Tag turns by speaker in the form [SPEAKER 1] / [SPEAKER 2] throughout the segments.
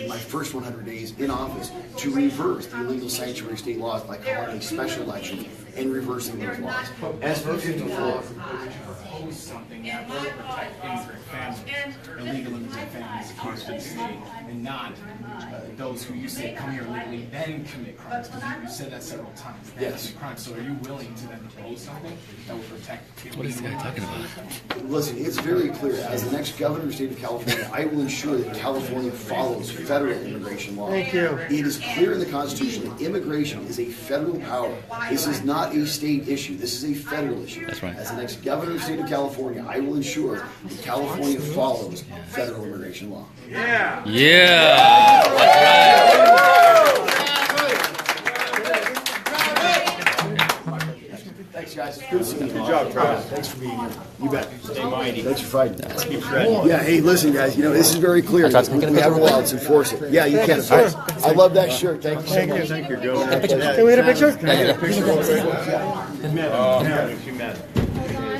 [SPEAKER 1] in my first 100 days in office to reverse the illegal sanctuary state laws by calling a special election and reversing those laws. As for 54,
[SPEAKER 2] propose something that will protect immigrant families, illegal immigrant families constitutionally, and not uh, those who you say come here legally then commit crimes, because you said that several times, then
[SPEAKER 1] Yes.
[SPEAKER 2] commit crimes. So are you willing to then propose something that will protect illegal?
[SPEAKER 3] What is this guy talking about?
[SPEAKER 1] listen, it's very clear, as the next governor of the state of California, I will ensure that California follows federal immigration law.
[SPEAKER 4] Thank you.
[SPEAKER 1] It is clear in the Constitution that immigration is a federal power. This is not a state issue. This is a federal issue.
[SPEAKER 3] That's right.
[SPEAKER 1] As the next governor of the state of California, I will ensure that California follows federal immigration law.
[SPEAKER 3] Yeah.
[SPEAKER 1] Thanks, guys. Good seeing you. Good
[SPEAKER 5] job, Travis.
[SPEAKER 1] Thanks for being here. You bet.
[SPEAKER 5] Stay mighty.
[SPEAKER 1] Thanks for fighting.
[SPEAKER 5] Keep shredding.
[SPEAKER 1] Yeah, hey, listen, guys, you know, this is very clear. We
[SPEAKER 3] thought-
[SPEAKER 1] have a law, let's enforce it. Yeah, you can. I love that shirt. Thank you so
[SPEAKER 4] Thank you.
[SPEAKER 1] much.
[SPEAKER 5] Thank you, Governor.
[SPEAKER 4] Can we get a picture?
[SPEAKER 5] Oh, man, she met.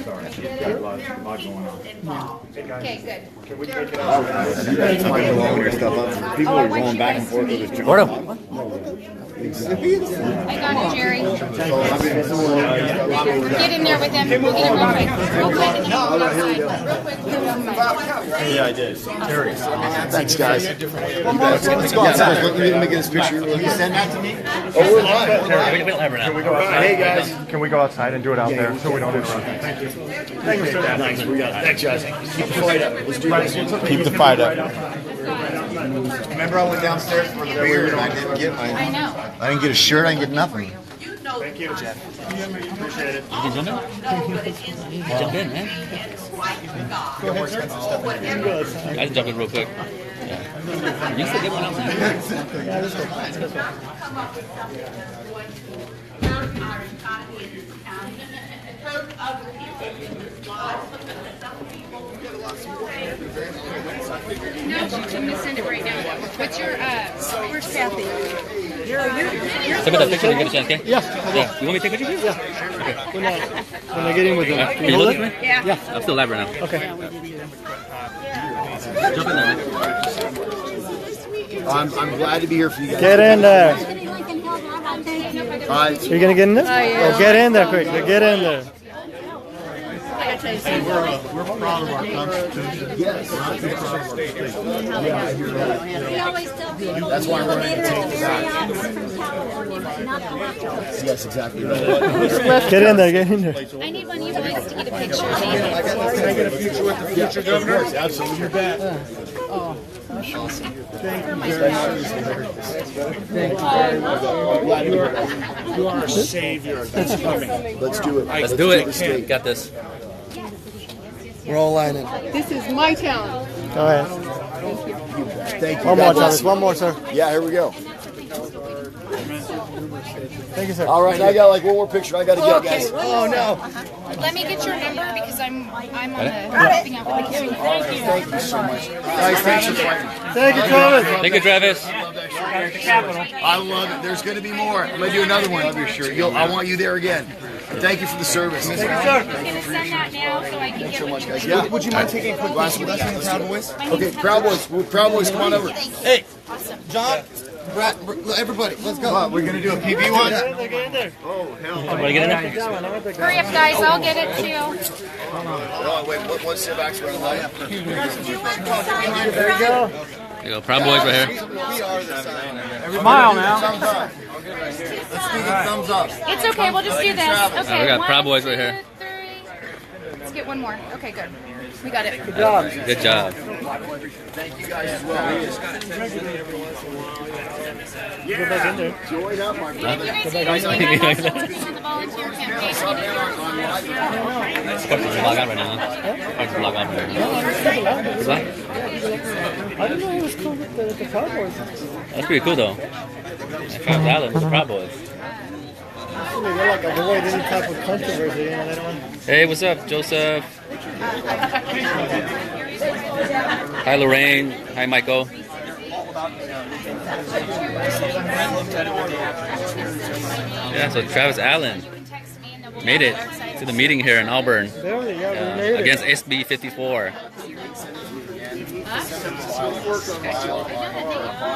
[SPEAKER 5] Sorry, she's got a lot, a lot going on.
[SPEAKER 6] Okay, good.
[SPEAKER 5] People are going back and forth with this.
[SPEAKER 3] What up?
[SPEAKER 6] I got it, Jerry. Get in there with them. We'll get him real quick. Real quick, and then we'll go outside. Real quick, put him on the mic.
[SPEAKER 5] Yeah, I did.
[SPEAKER 1] Thanks, guys. Let's go outside. Let me get this picture. Can you send that to me? Oh, we're live. We're live. Hey, guys.
[SPEAKER 7] Can we go outside and do it out there so we don't interrupt? Thank you. Thank you, sir.
[SPEAKER 1] Thanks, we got it. Thanks, guys. Keep the fight up. Let's do this.
[SPEAKER 5] Keep the fight up.
[SPEAKER 7] Remember I went downstairs for the beer and I didn't get my,
[SPEAKER 6] I know.
[SPEAKER 7] I didn't get a shirt, I didn't get nothing.
[SPEAKER 8] Thank you, Jeff.
[SPEAKER 5] Appreciate it.
[SPEAKER 3] You can jump in. Jump in, man. I can jump in real quick. Yeah. You still get one out, man.
[SPEAKER 6] No, you can just send it right now. What's your, uh, where's Kathy?
[SPEAKER 3] Look at that picture when you get a chance, okay? Yeah. You want me to take a picture? Yeah.
[SPEAKER 4] When I get in with them.
[SPEAKER 3] Can you look at me?
[SPEAKER 6] Yeah.
[SPEAKER 3] I'm still live right now. Okay. Jump in there, man.
[SPEAKER 1] I'm, I'm glad to be here for you guys.
[SPEAKER 4] Get in there.
[SPEAKER 1] All right.
[SPEAKER 4] You're gonna get in there? Oh, get in there quick. Get in there.
[SPEAKER 9] We always tell people, That's why we're in the Marriott's from California, but not the leftovers.
[SPEAKER 1] Yes, exactly. right.
[SPEAKER 4] Get in there. Get in there.
[SPEAKER 6] I need one of you guys to get a picture. of me.
[SPEAKER 8] You are a savior that's coming.
[SPEAKER 1] Let's do it.
[SPEAKER 3] Let's do it. Got this.
[SPEAKER 4] We're all lining.
[SPEAKER 9] This is my town.
[SPEAKER 4] All right.
[SPEAKER 1] Thank you. God
[SPEAKER 4] One more, Thomas.
[SPEAKER 1] bless you.
[SPEAKER 4] One more, sir.
[SPEAKER 1] Yeah, here we go.
[SPEAKER 4] Thank you, sir.
[SPEAKER 1] All right, I got like one more picture. I got to get, guys.
[SPEAKER 4] Oh, no.
[SPEAKER 6] Let me get your number because I'm, I'm on the thing out with the camera. Thank you.
[SPEAKER 1] Thank you so much. Guys, thanks for fighting.
[SPEAKER 4] Thank you, Travis.
[SPEAKER 3] Thank you, Travis.
[SPEAKER 1] I love it. There's going to be more. I'm going to do another one. Love your shirt. You'll, I want you there again. Thank you for the service.
[SPEAKER 6] I'm gonna send that now so I can get with you.
[SPEAKER 1] Yeah. Would you mind taking a quick glass of Okay, Proud Boys. Well, Proud Boys, come on over.
[SPEAKER 6] Hey. Awesome.
[SPEAKER 7] John, Brad, everybody, let's go.
[SPEAKER 1] We're going to do a PB
[SPEAKER 4] Get in there.
[SPEAKER 3] Everybody get in there.
[SPEAKER 6] Hurry up, guys. I'll get it too.
[SPEAKER 1] Oh, wait, what, what's the back's running light?
[SPEAKER 9] Do you want the sign on front?
[SPEAKER 3] There you go. Proud boys right here.
[SPEAKER 7] Smile now. Thumbs up. Let's do the thumbs up.
[SPEAKER 6] It's okay. We'll just do this. Okay.
[SPEAKER 3] Oh, we got
[SPEAKER 6] one,
[SPEAKER 3] Proud Boys right
[SPEAKER 6] two,
[SPEAKER 3] here.
[SPEAKER 6] three. Let's get one more. Okay, good. We got it.
[SPEAKER 3] Good job.
[SPEAKER 1] Join up, my
[SPEAKER 6] If you guys need anything, I'm also working on the volunteer campaign. If you need your-
[SPEAKER 3] Sparks is log out right now. huh? Sparks is log out right now. What's that?
[SPEAKER 4] I didn't know it was cool with the, the Cowboys.
[SPEAKER 3] That's pretty cool though. That five dollars for Proud Boys.
[SPEAKER 4] They're like a avoid any type of controversy. You know, they don't want
[SPEAKER 3] Hey, what's up, Joseph? Hi, Lorraine. Hi, Michael. Yeah, so Travis Allen
[SPEAKER 6] You can text me and then we'll
[SPEAKER 3] made it
[SPEAKER 6] go on the website.
[SPEAKER 3] to the meeting here in Auburn uh,
[SPEAKER 4] There we go. We made it.
[SPEAKER 3] against SB 54.
[SPEAKER 6] Worked on my- on my-